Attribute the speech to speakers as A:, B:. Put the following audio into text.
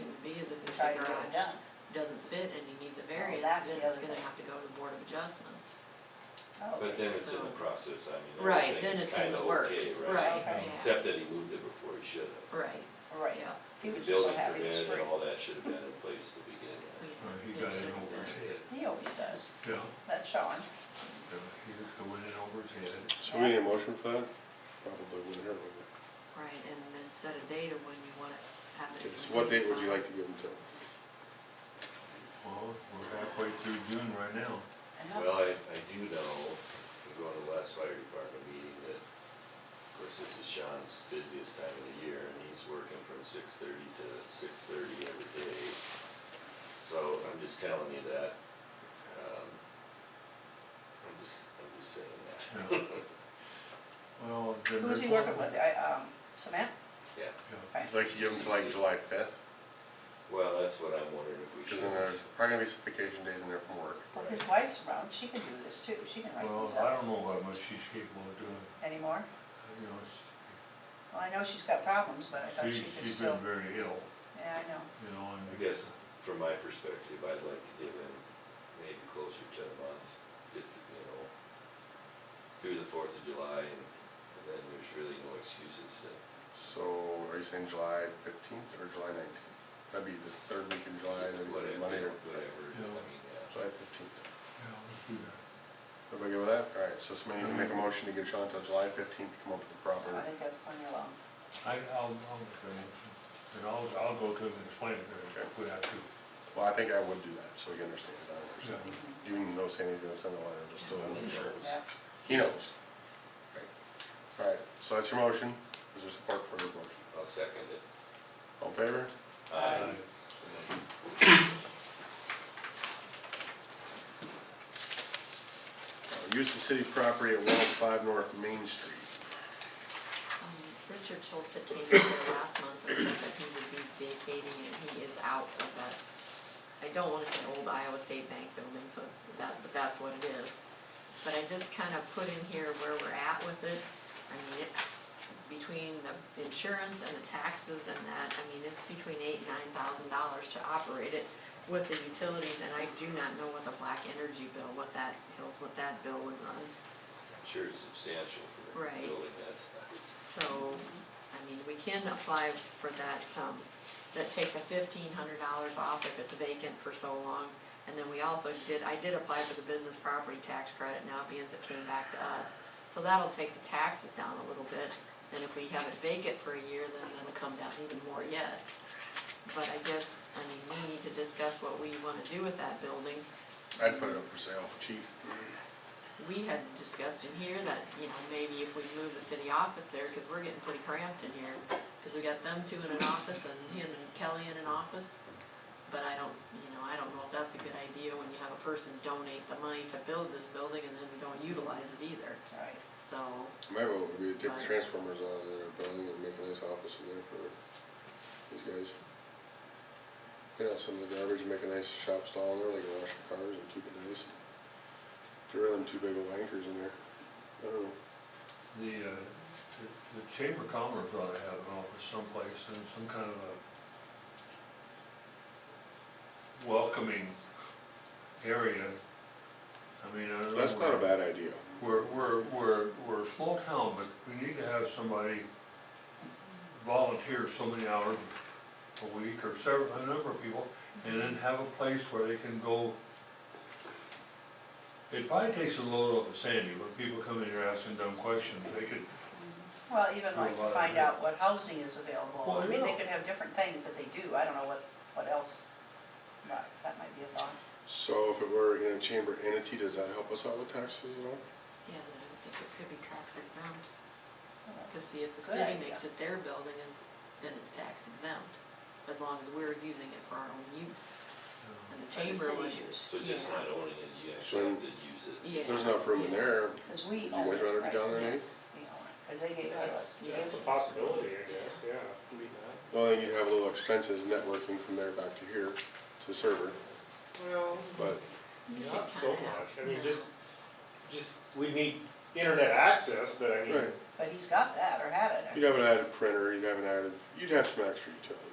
A: try
B: if
A: to
B: the
A: get it
B: garage
A: done.
B: doesn't fit and you need the variance,
A: that's
B: then
A: the
B: it's
A: other
B: gonna
A: thing.
B: have to go to the board of adjustments.
A: Oh,
C: But then it's in the
B: So-
C: process, I mean,
B: Right,
C: everything
B: then
C: is
B: it's in
C: kinda
B: the
C: okay,
B: works,
C: right?
B: right,
A: Okay.
B: yeah,
C: Except that he moved it before he should have.
B: right,
A: Right.
B: yeah.
A: He was
C: The
A: just so
C: building
A: happy it's
C: permit
A: free.
C: and all that should have been in place to begin
B: yeah,
C: with.
D: Well, He
B: it
D: got
B: should
D: in
B: have
D: over his
B: been.
D: head.
A: He always does,
D: Yeah,
A: that Sean.
D: yeah, he went in over his head.
E: Should we need a motion for that? Probably wouldn't hurt, would it?
B: Right, and then set a date of when you wanna have it.
E: Okay, So what date would you like to give them till?
D: Well, we're halfway through June right now.
A: Enough.
C: Well, I, I do know, from going to the last fire department meeting, that, of course, this is Sean's busiest time of the year, and he's working from six thirty to six thirty every day. So I'm just telling you that, um, I'm just, I'm just saying that.
D: Well, then.
A: Who's
D: there's
A: he
D: one-
A: working with, I, um, Samantha?
C: Yeah,
D: Yeah.
A: Okay.
E: I'd like to give them till like July fifth,
C: well, that's what I'm wondering if we
E: because
C: should.
E: then there's probably gonna be some vacation days in there from work.
A: Well, his wife's around, she can do this too, she can write
D: Well,
A: these
D: I
A: up
D: don't know how much she's capable of doing,
A: anymore.
D: you know, it's-
A: Well, I know she's got problems, but I thought she
D: she,
A: could
D: she's
A: still,
D: been very ill,
A: yeah, I know.
D: you know, and.
C: I guess, from my perspective, I'd like to give him maybe closer to a month, get, you know, through the Fourth of July, and and then there's really no excuses to,
E: So are you saying July fifteenth or July nineteenth? That'd be the third week in July, that'd be
C: whatever,
E: Monday or
C: whatever, I
D: Yeah.
C: mean, yeah.
E: July fifteenth.
D: Yeah, let's do that.
E: Everybody good with that? All right, so somebody needs to make a motion to give Sean till July fifteenth to come up with the proper.
A: I think that's plenty long.
D: I, I'll, I'll make a motion, and I'll, I'll go to him and explain it, and
E: Okay.
D: put out too.
E: Well, I think I would do that, so he understands it, I understand.
D: Yeah.
E: Even though Sandy's gonna send a letter, just still want to make sure.
A: Yeah,
E: He knows. All right, so that's your motion. Is there support for your motion?
C: I'll second it.
E: All in favor?
A: Aye.
E: Uh, Use of city property at one oh five North Main Street.
B: Um, Richard Schultz had came in here last month and said that he would be vacating and he is out of that. I don't wanna say old Iowa State Bank building, so it's that, but that's what it is. But I just kind of put in here where we're at with it. I mean, it, between the insurance and the taxes and that, I mean, it's between eight, nine thousand dollars to operate it with the utilities, and I do not know what the black energy bill, what that, what that bill would run.
C: I'm Sure it's substantial for a
B: Right.
C: building that size.
B: So, I mean, we can apply for that, um, that take the fifteen hundred dollars off if it's vacant for so long. And then we also did, I did apply for the business property tax credit now, being as it came back to us. So that'll take the taxes down a little bit, and if we have it vacant for a year, then it'll come down even more yet. But I guess, I mean, we need to discuss what we wanna do with that building.
E: I'd put it up for sale, cheap.
B: We had discussed in here that, you know, maybe if we move the city office there, cause we're getting pretty cramped in here. Cause we got them two in an office and him and Kelly in an office. But I don't, you know, I don't know if that's a good idea when you have a person donate the money to build this building and then we don't utilize it either.
A: right.
B: So,
E: My vote would be to take the transformers out of their building and make a nice office in there for these guys. Clean out some of the garbage, make a nice shop stall in there, they can wash their cars and keep it nice. Get rid of them two big old anchors in there. I don't know.
D: The, uh, the the Chamber of Commerce ought to have an office someplace and some kind of a welcoming area. I mean, I don't know.
E: That's not a bad idea.
D: We're, we're, we're, we're a small town, but we need to have somebody volunteer so many hours a week or several, a number of people, and then have a place where they can go. It probably takes a load off of Sandy when people come in here asking dumb questions. They could
A: Well, even
D: Do a
A: like to
D: lot of
A: find
D: good.
A: out what housing is available,
D: Well,
A: I mean, they
D: yeah.
A: could have different things that they do, I don't know what, what else, that, that might be a thought.
E: So if it were in a chamber entity, does that help us out with taxes at all?
B: yeah, then I think it could be tax exempt,
A: Well,
B: to
A: that's-
B: see if the
A: Good
B: city
A: idea.
B: makes it their building and then it's tax exempt. As long as we're using it for our own use,
D: uh,
B: and the
A: for the
B: chamber would.
A: city use.
C: So just
B: Yeah.
C: not owning it, you actually have to use it.
B: Yeah.
E: There's enough room in there.
A: Cause we
E: Would you
A: own
E: guys
A: it,
E: rather be
A: right?
E: down there, Nate?
B: Yes,
A: We own it, cause they gave it to us.
B: Yeah.
F: That's a possibility, I guess, yeah. I mean, uh,
E: The only thing you have a little expenses networking from there back to here to the server,
F: Well,
E: but
B: You could
F: not so
B: kinda have-
F: much, I mean,
B: no.
F: just, just, we need internet access,
B: Mm-hmm.
F: but I mean,
E: Right.
A: But he's got that, or had it.
E: you'd have an added printer, you'd have an added, you'd have some extra utilities.